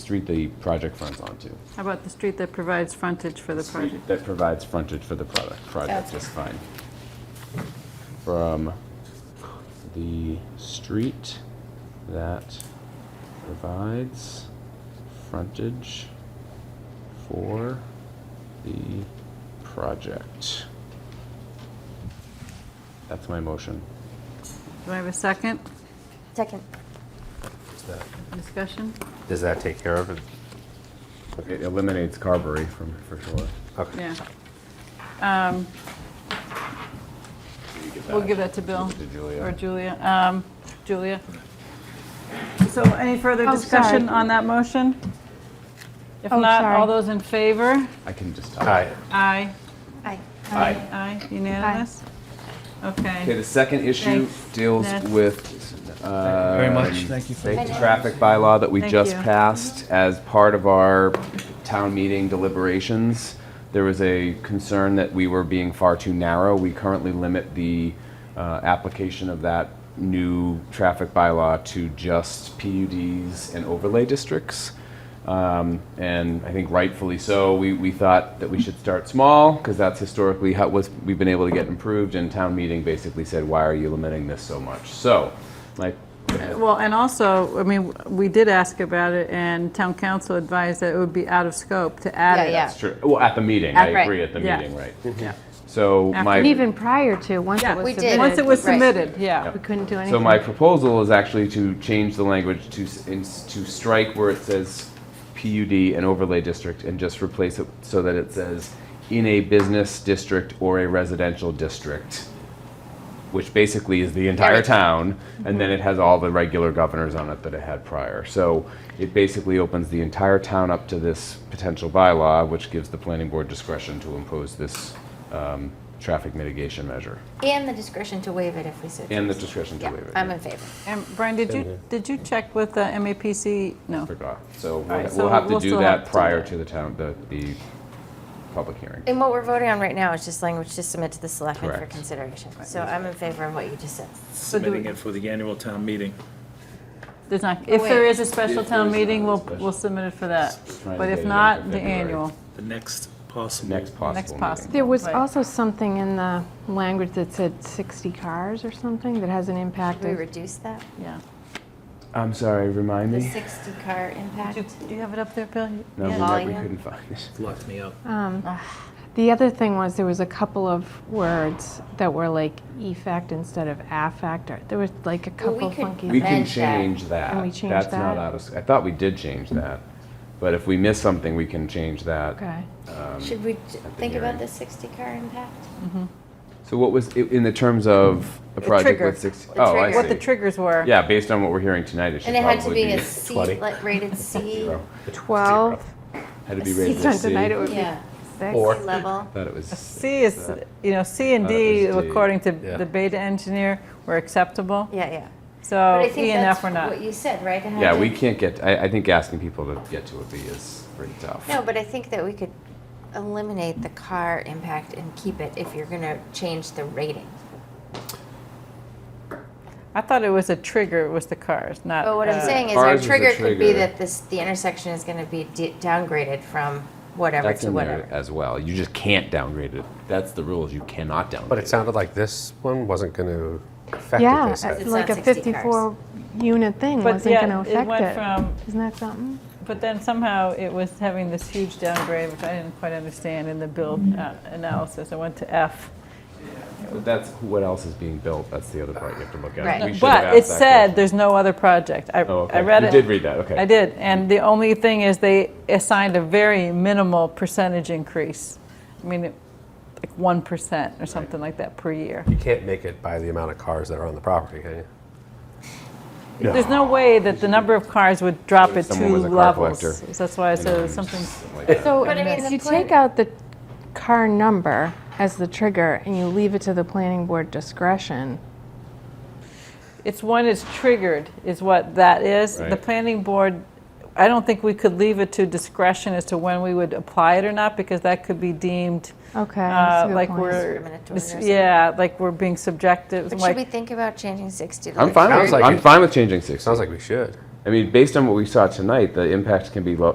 street the project fronts onto. How about the street that provides frontage for the Street project? That provides frontage for the product, project That's- is fine. From the street that provides frontage for the project. That's my motion. Do I have a second Second. Is that- discussion? Does that take care of it? It eliminates Carberry from, for sure. Okay. Yeah. Um, We'll give that to Bill. To Julia. Or Julia, um, Julia. So any further Oh, sorry. discussion on that motion? If Oh, not, all sorry. those in favor? I can just All talk. right. Aye. Aye. Aye. Aye, unanimous? Okay, Okay. the second issue Thanks, deals Ned. with, uh, Very much, thank you. the traffic bylaw that we Thank just you. passed as part of our town meeting deliberations. There was a concern that we were being far too narrow. We currently limit the uh, application of that new traffic bylaw to just PUDs and overlay districts. Um, and I think rightfully so, we, we thought that we should start small because that's historically how was we've been able to get improved. And town meeting basically said, "Why are you limiting this so much?" So, like, Well, and also, I mean, we did ask about it, and town council advised that it would be out of scope to add Yeah, it. yeah. That's true. Well, at the meeting, I At- right. agree, at the Yeah. meeting, right. So After- And my, even prior to, once Yeah, it was we did. submitted. Once it was Right. submitted, yeah. We couldn't do anything. so my proposal is actually to change the language to, s- in s- to strike where it says PUD and overlay district and just replace it so that it says in a business district or a residential district, which basically is the entire town, and then it Mm-hmm. has all the regular governors on it that it had prior. So it basically opens the entire town up to this potential bylaw, which gives the planning board discretion to impose this um, traffic mitigation measure. And the discretion to waive it if we so choose. And the discretion to Yeah, waive it. I'm yeah. in favor. And Brian, did you, did you check with the MAPC? No. Forgot. So Oh. right, we'll so we'll have to we'll do still that have to do prior that. to the town, the, the public hearing. And what we're voting on right now is just language to submit to the selectmen for Correct. consideration. So I'm in favor of what you just said. So do Submitting we- it for the annual town meeting. There's not, if there wait. is a special If there town is meeting, we'll, another we'll special. submit it for that. Trying to But get it if in for not, the February. annual, The next possible. Next possible next meeting. possible. There was Right. also something in the language that said 60 cars or something that has an impact. Should we of- reduce that? yeah. I'm sorry, remind The me? 60-car impact? Do you have it up there, Bill? No, we Yeah. might- we Volume. couldn't find it. Locked me up. The other thing was, there was a couple of words that were like effect instead of affect, or there was like a Well, we couple could- funky. We can Amend that. change that. Can we change That's not that? out of, s- I thought we did change that, but if we miss something, we can change that. Okay. Should we j- think hearing. about the 60-car impact? So what was, i- in the terms of a project trigger. with six? The Oh, I trigger. What the see. triggers were. Yeah, based on what we're hearing tonight, it should And it had to probably be be a C, 20. like rated C, zero. 12, Had to be he rated a said C. tonight it I would be yeah, six. Or- level. Thought it was, C is, you know, C and Thought it D, was D. according to Yeah. the beta engineer, were acceptable. Yeah, yeah. But So Oh, I think E and that's F were not. What you said, right? It had yeah, to- we can't get, I, I think asking people to get to a B is pretty tough. No, but I think that we could eliminate the car impact and keep it if you're gonna change the rating. I thought it was a trigger, it was the cars, not. But what I'm uh, saying is Ours our is a trigger could be trigger. that this, the intersection is gonna be de- downgraded from whatever That's to in there whatever. as well. You just can't downgrade it. That's the rules. You cannot downgrade. But it sounded like this one wasn't going to affect it, Yeah, they said. it's It's like a not 60 54 unit thing But wasn't yeah, going to it affect went it. from, Isn't that something? but then somehow it was having this huge downgrade, which I didn't quite understand in the build Mm-hmm. uh, analysis. I went to F. But that's what else is being built. That's the other part you have to look at. Right. We should have But it asked that said, question. there's no other project. I, Oh, okay. I read You it. did read that, okay. I did, and the only thing is they assigned a very minimal percentage increase. I mean, it- like 1% or something like that per year. You can't make it by the amount of cars that are on the property, can you? There's no way that the number of cars would drop at Someone two was a car levels. collector. That's why I Um, said something, like that. So But I mean, if the you plan- take out the car number as the trigger and you leave it to the planning board discretion, it's when it's triggered is what that is. The Right. planning board, I don't think we could leave it to discretion as to when we would apply it or not, because that could be deemed, okay, uh, that's a good like point. we're, Discriminatory or something. yeah, like we're being subjective. But like- should we think about changing 60 to I'm like fine. Sounds With, like I'm it. fine with changing six. Sounds like we should. I mean, based on what we saw tonight, the impact can be low,